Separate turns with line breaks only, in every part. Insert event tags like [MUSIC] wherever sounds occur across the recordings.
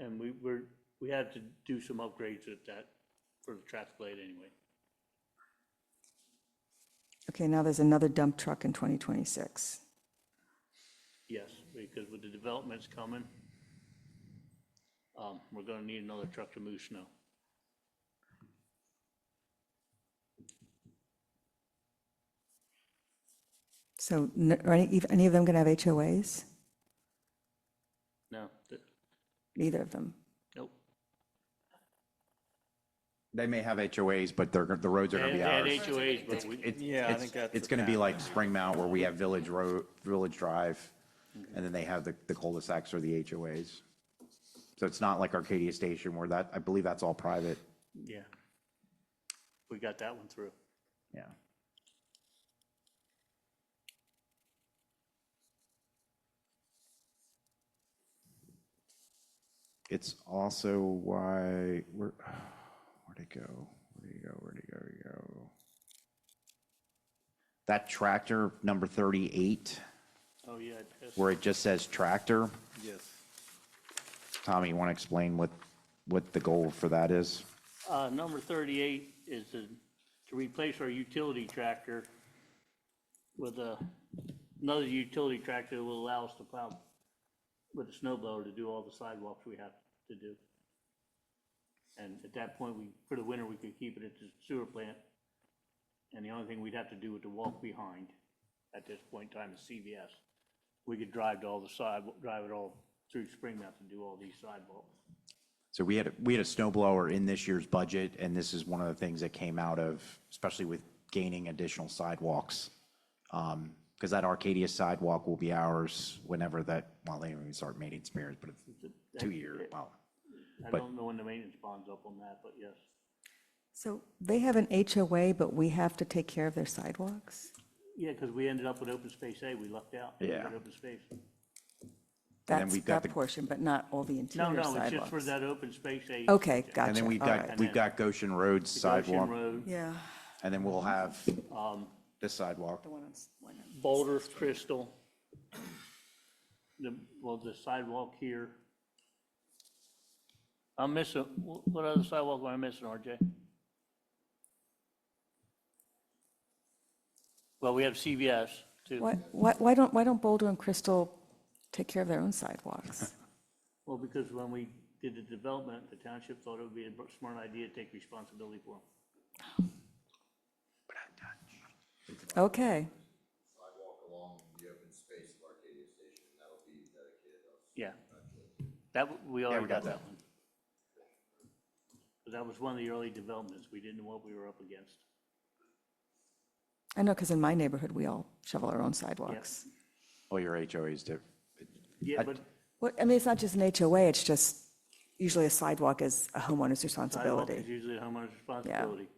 and we were, we had to do some upgrades at that, for the traffic light anyway.
Okay, now there's another dump truck in 2026.
Yes, because with the developments coming, um, we're gonna need another truck to move snow.
So n- are any, if any of them going to have HOAs?
No, th-
Neither of them.
nope.
They may have HOAs, but they're, go- the roads are
They
gonna be
had
ours.
HOAs, but we,
It's-
Yeah, I
it's-
think that's
It's
the
gonna be like Spring Mount where we have Village Road, Village Drive, and then they have the the cul-de-sacs or the HOAs. So it's not like Arcadia Station where that, I believe that's all private.
yeah. We got that one through.
Yeah. It's also why, where, [SIGHS] where'd it go? Where'd it go? Where'd it go? Where'd it go? That tractor, number 38,
Oh, yeah. it has-
where it just says tractor.
Yes.
Tommy, you want to explain what, what the goal for that is?
Uh, number thirty-eight is to, to replace our utility tractor with a, another utility tractor that will allow us to plow with a snow blower to do all the sidewalks we have to do. And at that point, we, for the winter, we could keep it at the sewer plant. And the only thing we'd have to do with the walk behind at this point in time is CVS. We could drive to all the side, drive it all through Springmount to do all these sidewalks.
So we had, a- we had a snow blower in this year's budget, and this is one of the things that came out of, especially with gaining additional sidewalks. Because that Arcadia sidewalk will be ours whenever that, well, they don't even start maintenance periods, but it's two year, wow.
I
But-
don't know when the maintenance bond's up on that, but yes.
So they have an HOA, but we have to take care of their sidewalks?
Yeah, because we ended up with open space A, we lucked out. We
Yeah.
got Open space.
then
That's
we've got
that
the-
portion, but not all the
No,
interior
no, it's just for
sidewalks.
that open space A.
Okay, gotcha.
And then we've
all right.
got, we've got Goshen Road Um,
Goshen
sidewalk,
Road,
Yeah.
and then we'll have this sidewalk.
Boulder, Crystal. The, well, the sidewalk here. I'm missing, wh- what other sidewalk am I missing, RJ? Well, we have CVS too.
Why, why why don't, why don't Boulder and Crystal take care of their
[LAUGHS]
own sidewalks?
Well, because when we did the development, the township thought it would be a smart idea to take responsibility for them.
Okay,
sidewalk along the open space of Arcadia Station, and that'll be dedicated us.
Yeah. That, w- we already
got
got
that.
that one. But that was one of the early developments. We didn't know what we were up against.
I know, because in my neighborhood, we all shovel our own sidewalks.
All Oh, your HOAs do.
Yeah, but
Well, I mean, it's not just an HOA, it's just usually a sidewalk is a homeowner's
sidewalk
responsibility.
is usually the homeowner's responsibility.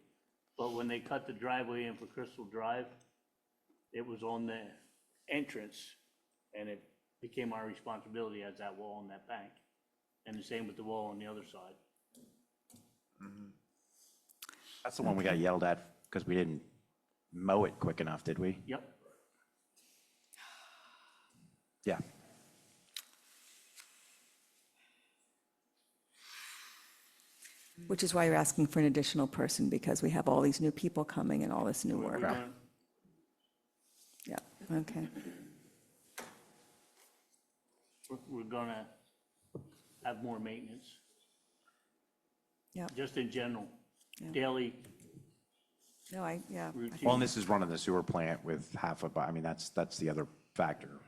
But when they cut the driveway in for Crystal Drive, it was on the entrance and it became our responsibility as that wall on that bank. And the same with the wall on the other side.
That's the one we got yelled at because we didn't mow it quick enough, did we?
Yep.
Yeah.
Which is why you're asking for an additional person, because we have all these new people coming and all this new
We're
work.
gonna-
Yeah, okay.
we're- We're gonna have more maintenance.
Yeah,
just in general,
Yeah.
daily
no, I, yeah.
Well, and
routine.
this is running the sewer plant with half of, I mean, that's, that's the other factor.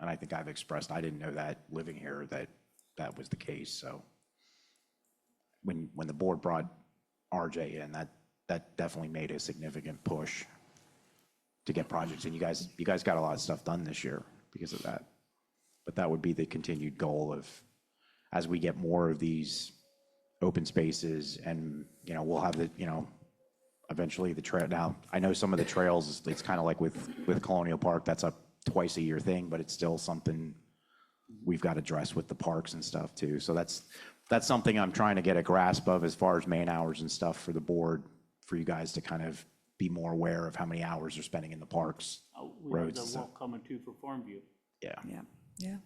And I think I've expressed, I didn't know that, living here, that that was the case, so. When, when the board brought RJ in, that, that definitely made a significant push to get projects, and you guys, you guys got a lot of stuff done this year because of that. But that would be the continued goal of, as we get more of these open spaces and, you know, we'll have the, you know, eventually the trail. Now, I know some of the trails, it's- it's kind of like with, with Colonial Park, that's a twice a year thing, but it's still something we've got to address with the parks and stuff too. So that's, that's something I'm trying to get a grasp of as far as man hours and stuff for the board, for you guys to kind of be more aware of how many hours they're spending in the parks.
Uh, We have
roads
the
and stuff.
walk coming too for Farmview.
Yeah.
Yeah, yeah.